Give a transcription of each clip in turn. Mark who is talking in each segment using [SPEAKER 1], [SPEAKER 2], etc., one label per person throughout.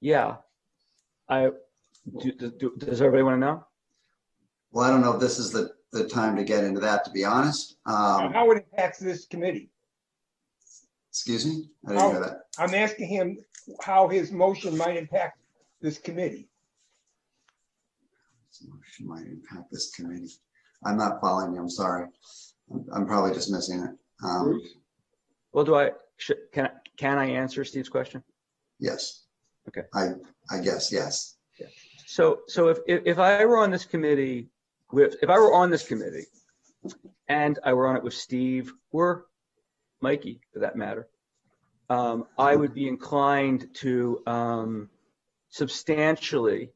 [SPEAKER 1] Yeah. I, do, do, does everybody want to know?
[SPEAKER 2] Well, I don't know if this is the, the time to get into that, to be honest.
[SPEAKER 3] Now,
[SPEAKER 2] Um,
[SPEAKER 3] How it impacts this committee?
[SPEAKER 2] excuse me? I didn't hear that.
[SPEAKER 3] I'm asking him how his motion might impact this committee.
[SPEAKER 2] Motion Might impact this committee. I'm not following you, I'm sorry. I'm- I'm probably just missing it. Um,
[SPEAKER 1] Well, do I, should, can, I- can I answer Steve's question?
[SPEAKER 2] yes.
[SPEAKER 1] Okay.
[SPEAKER 2] I, I guess, yes.
[SPEAKER 1] So, so if, if, if I were on this committee with, if I were on this committee and I were on it with Steve or Mikey for that matter, um, I would be inclined to, um, substantially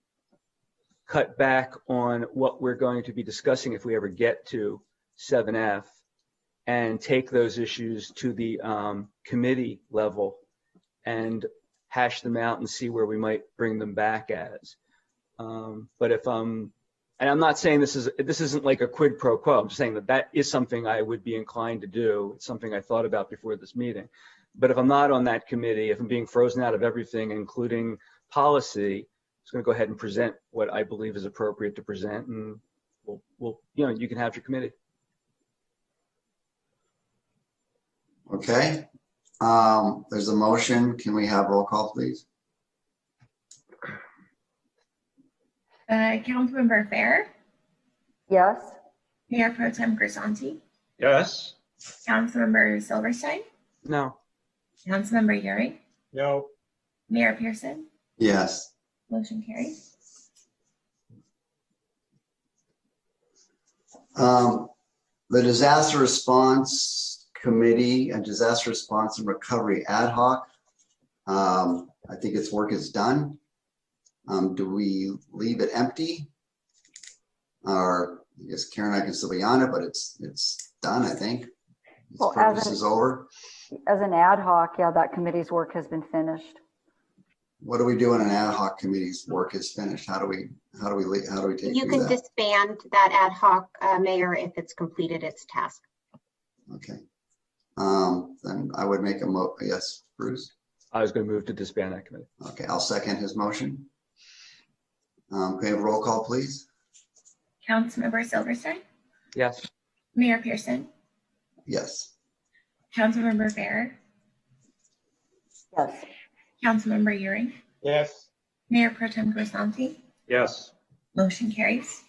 [SPEAKER 1] cut back on what we're going to be discussing if we ever get to seven F and take those issues to the, um, committee level and hash them out and see where we might bring them back as. Um, but if um, and I'm not saying this is this isn't like a quid pro quo. I'm just saying that that is something I would be inclined to do. It's something I thought about before this meeting. But if I'm not on that committee, if I'm being frozen out of everything, including policy, I'm just going to go ahead and present what I believe is appropriate to present, and we'll, we'll you know you can have your committee.
[SPEAKER 2] Okay. Um, there's a motion. Can we have roll call, please?
[SPEAKER 4] Uh, Councilmember Fair,
[SPEAKER 5] Yes.
[SPEAKER 4] Mayor Pro Tem Grisanti,
[SPEAKER 6] Yes.
[SPEAKER 4] Councilmember Silverstein,
[SPEAKER 1] No,
[SPEAKER 4] Councilmember Yuri,
[SPEAKER 3] No,
[SPEAKER 4] Mayor Pearson,
[SPEAKER 2] Yes.
[SPEAKER 4] motion carried.
[SPEAKER 2] Um, The Disaster Response Committee and Disaster Response and Recovery Ad hoc. um, I think its work is done. Um, Do we leave it empty? Or, I guess Karen, and I can still be on it, but it's, it's done, I think.
[SPEAKER 5] Well,
[SPEAKER 2] Its
[SPEAKER 5] as
[SPEAKER 2] purpose
[SPEAKER 5] an-
[SPEAKER 2] is over.
[SPEAKER 5] As an ad hoc, yeah, that committee's work has been finished.
[SPEAKER 2] What do we do when an ad hoc committee's work is finished? How do we, how do we, lea- how do we take?
[SPEAKER 7] You
[SPEAKER 2] do
[SPEAKER 7] can
[SPEAKER 2] that?
[SPEAKER 7] disband that ad hoc uh, mayor if it's completed its task.
[SPEAKER 2] Okay. Um, Then I would make a mo, yes, Bruce?
[SPEAKER 1] I was going to move to disband that committee.
[SPEAKER 2] Okay, I'll second his motion. Um, can we have a roll call, please?
[SPEAKER 4] Councilmember Silverstein,
[SPEAKER 1] Yes.
[SPEAKER 4] Mayor Pearson,
[SPEAKER 2] Yes.
[SPEAKER 4] Councilmember Fair,
[SPEAKER 5] Yes.
[SPEAKER 4] Councilmember Yuri,
[SPEAKER 3] yes.
[SPEAKER 4] Mayor Pro Tem Grisanti,
[SPEAKER 6] Yes.
[SPEAKER 4] motion carries.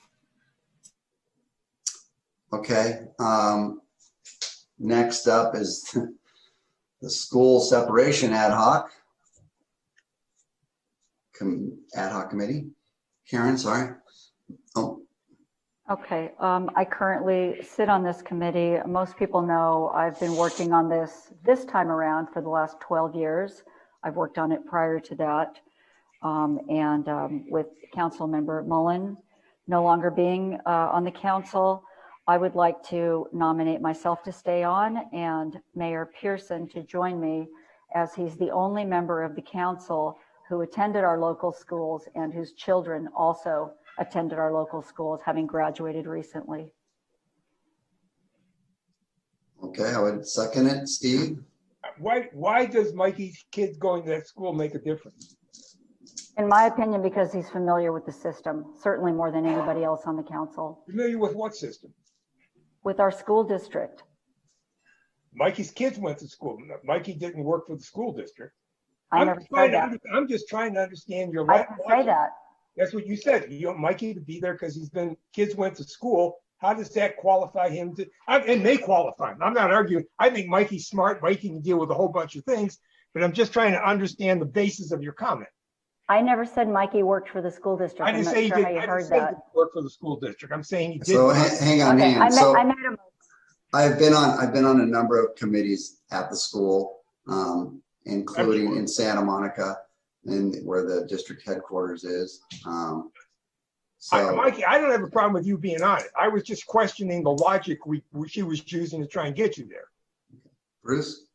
[SPEAKER 2] Okay, um, next up is the school separation ad hoc. Com, ad hoc committee. Karen, sorry. Oh,
[SPEAKER 5] Okay, um, I currently sit on this committee. Most people know I've been working on this this time around for the last 12 years. I've worked on it prior to that. Um, and, um, with Councilmember Mullen no longer being, uh, on the council, I would like to nominate myself to stay on and Mayor Pearson to join me as he's the only member of the council who attended our local schools and whose children also attended our local schools, having graduated recently.
[SPEAKER 2] okay, I would second it. Steve?
[SPEAKER 3] Why, why does Mikey's kids going to that school make a difference?
[SPEAKER 5] In my opinion, because he's familiar with the system, certainly more than anybody else on the council,
[SPEAKER 3] Familiar with what system?
[SPEAKER 5] with our school district.
[SPEAKER 3] Mikey's kids went to school. Mikey didn't work for the school district.
[SPEAKER 5] I
[SPEAKER 3] I'm
[SPEAKER 5] never
[SPEAKER 3] trying to
[SPEAKER 5] said that.
[SPEAKER 3] under- I'm just trying to understand your.
[SPEAKER 5] I
[SPEAKER 3] la-
[SPEAKER 5] didn't say that.
[SPEAKER 3] That's what you said. You want Mikey to be there because he's been, kids went to school. How does that qualify him to, I- and they qualify him. I'm not arguing. I think Mikey's smart. Mikey can deal with a whole bunch of things, but I'm just trying to understand the basis of your comment.
[SPEAKER 5] I never said Mikey worked for the school district.
[SPEAKER 3] I
[SPEAKER 5] I'm
[SPEAKER 3] didn't
[SPEAKER 5] not
[SPEAKER 3] say he
[SPEAKER 5] sure
[SPEAKER 3] did,
[SPEAKER 5] how you
[SPEAKER 3] I didn't
[SPEAKER 5] heard
[SPEAKER 3] say he
[SPEAKER 5] that.
[SPEAKER 3] didn't work for the school district. I'm saying he did.
[SPEAKER 2] So ha- hang on,
[SPEAKER 5] Okay,
[SPEAKER 2] hang
[SPEAKER 5] I
[SPEAKER 2] on.
[SPEAKER 5] made,
[SPEAKER 2] So.
[SPEAKER 5] I made a,
[SPEAKER 2] I've been on, I've been on a number of committees at the school, um, including in Santa Monica and where the district headquarters is. Um,
[SPEAKER 3] I-
[SPEAKER 2] so,
[SPEAKER 3] Mikey, I don't have a problem with you being on it. I was just questioning the logic we, we- she was using to try and get you there.
[SPEAKER 2] Bruce,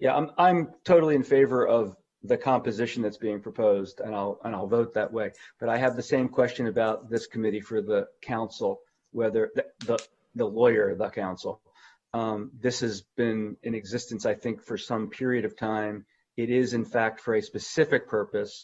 [SPEAKER 1] Yeah, I'm, I'm totally in favor of the composition that's being proposed and I'll, and I'll vote that way. But I have the same question about this committee for the council, whether the- the, the lawyer, the council. Um, This has been in existence, I think, for some period of time. It is in fact for a specific purpose.